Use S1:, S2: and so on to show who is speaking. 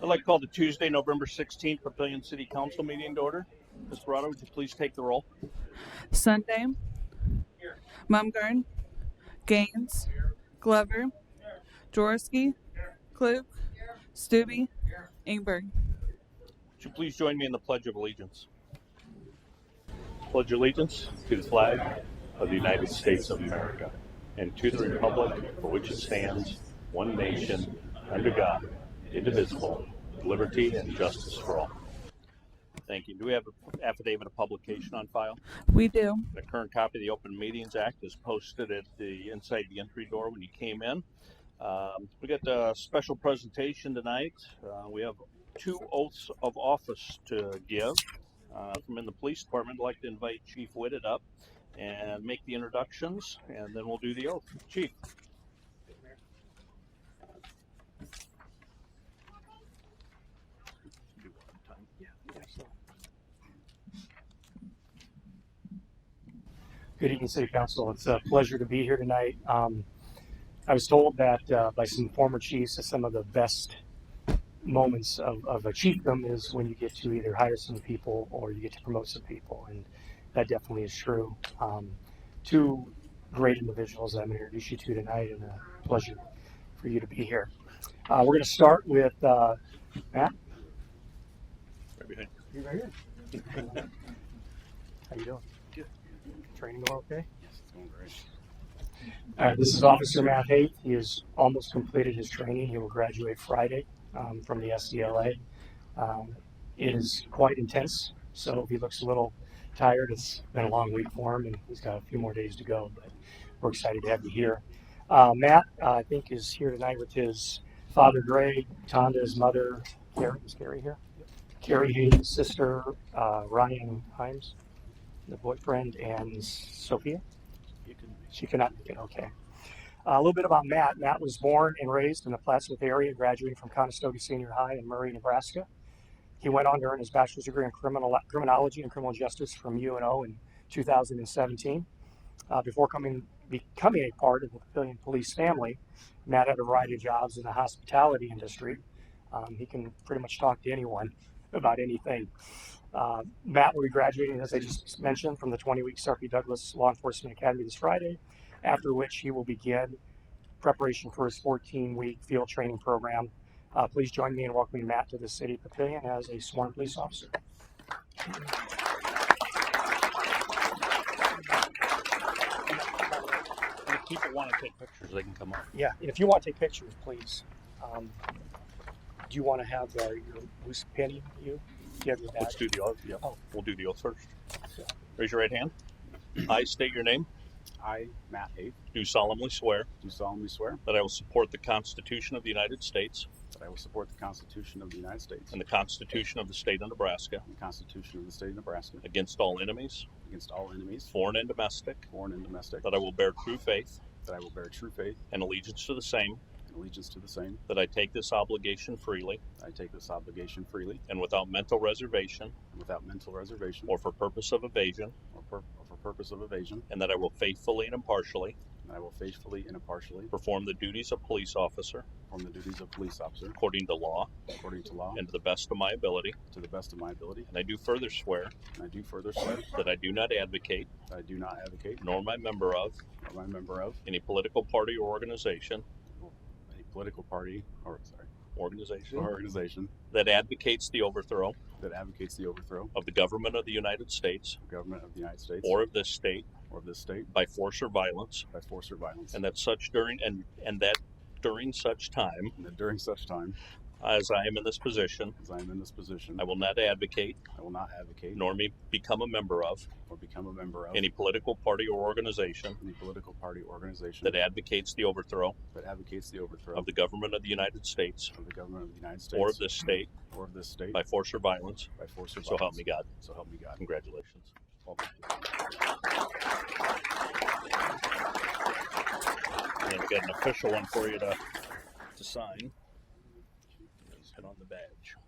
S1: I'd like to call the Tuesday, November 16th Papillion City Council meeting to order. Ms. Barato, would you please take the roll?
S2: Sunday. Mumgarn. Gaines. Glover. Jaworski. Klug. Stubbe. Ingberg.
S1: Would you please join me in the Pledge of Allegiance? Pledge allegiance to the flag of the United States of America and to the republic for which it stands, one nation, under God, indivisible, with liberty and justice for all. Thank you. Do we have an affidavit of publication on file?
S2: We do.
S1: The current copy of the Open Meetings Act is posted at the, inside the entry door when you came in. Um, We got a special presentation tonight. Uh, We have two oaths of office to give. Uh, From in the police department, I'd like to invite Chief Whitted up and make the introductions, and then we'll do the oath. Chief?
S3: Good evening, City Council. It's a pleasure to be here tonight. Um, I was told that uh, by some former chiefs that some of the best moments of, of a chiefdom is when you get to either hire some people or you get to promote some people, and that definitely is true. Um, two great individuals that I'm going to introduce you to tonight, and a pleasure for you to be here. Uh, we're going to start with uh, Matt.
S1: Right behind you.
S3: You right here. How you doing?
S4: Good.
S3: Training going okay?
S4: Yes, it's going great.
S3: Uh, this is Officer Matt Haight. He has almost completed his training. He will graduate Friday um, from the SDLA. Um, it is quite intense, so if he looks a little tired, it's been a long week for him, and he's got a few more days to go. But we're excited to have you here. Uh, Matt, uh, I think, is here tonight with his father, Greg, Tonda, his mother, Carrie. Is Carrie here? Carrie Hayes, his sister, uh, Ryan Himes, the boyfriend, and Sophia.
S4: You can
S3: She cannot make it. Okay. Uh, a little bit about Matt. Matt was born and raised in the Plattsmouth area, graduating from Conestoga Senior High in Murray, Nebraska. He went on to earn his bachelor's degree in criminal criminology and criminal justice from UNO in 2017. Uh, before coming becoming a part of the Papillion police family, Matt had a variety of jobs in the hospitality industry. Um, he can pretty much talk to anyone about anything. Uh, Matt will be graduating, as I just mentioned, from the 20-week Sarpy Douglas Law Enforcement Academy this Friday after which he will begin preparation for his 14 week field training program. Uh, please join me in welcoming Matt to the city of Papillion as a sworn police officer.
S1: And if people want to take pictures, they can come up.
S3: Yeah, and if you want to take pictures, please. Um, do you want to have uh, your loose penny? You? Do you have your badge?
S1: Let's do the oath. Yeah,
S3: Oh.
S1: we'll do the oath first. Raise your right hand. I state your name.
S4: I, Matt Haight,
S1: Do solemnly swear
S4: do solemnly swear
S1: that I will support the Constitution of the United States
S4: that I will support the Constitution of the United States
S1: and the Constitution of the State of Nebraska
S4: and the Constitution of the State of Nebraska
S1: against all enemies,
S4: against all enemies,
S1: foreign and domestic,
S4: foreign and domestic,
S1: that I will bear true faith
S4: that I will bear true faith
S1: and allegiance to the same,
S4: and allegiance to the same,
S1: that I take this obligation freely
S4: that I take this obligation freely
S1: and without mental reservation
S4: and without mental reservation
S1: or for purpose of evasion,
S4: or pur- or for purpose of evasion,
S1: and that I will faithfully and impartially
S4: and I will faithfully and impartially
S1: perform the duties of police officer
S4: perform the duties of police officer
S1: according to law
S4: according to law
S1: and to the best of my ability.
S4: to the best of my ability.
S1: And I do further swear
S4: And I do further swear
S1: that I do not advocate,
S4: that I do not advocate,
S1: nor am I a member of,
S4: nor am I a member of,
S1: any political party or organization,
S4: any political party or sorry,
S1: organization
S4: or organization
S1: that advocates the overthrow
S4: that advocates the overthrow
S1: of the government of the United States
S4: of government of the United States
S1: or of this state
S4: or of this state
S1: by force or violence,
S4: by force or violence,
S1: and that such during and and that during such time
S4: and that during such time
S1: as I am in this position,
S4: as I am in this position,
S1: I will not advocate
S4: I will not advocate
S1: nor me become a member of
S4: or become a member of
S1: any political party or organization
S4: any political party or organization
S1: that advocates the overthrow
S4: that advocates the overthrow
S1: of the government of the United States
S4: of the government of the United States
S1: or of this state
S4: or of this state
S1: by force or violence.
S4: by force or
S1: So help
S4: violence.
S1: me God.
S4: So help me God.
S1: Congratulations. And I've got an official one for you to, to sign. Just Hit on the badge.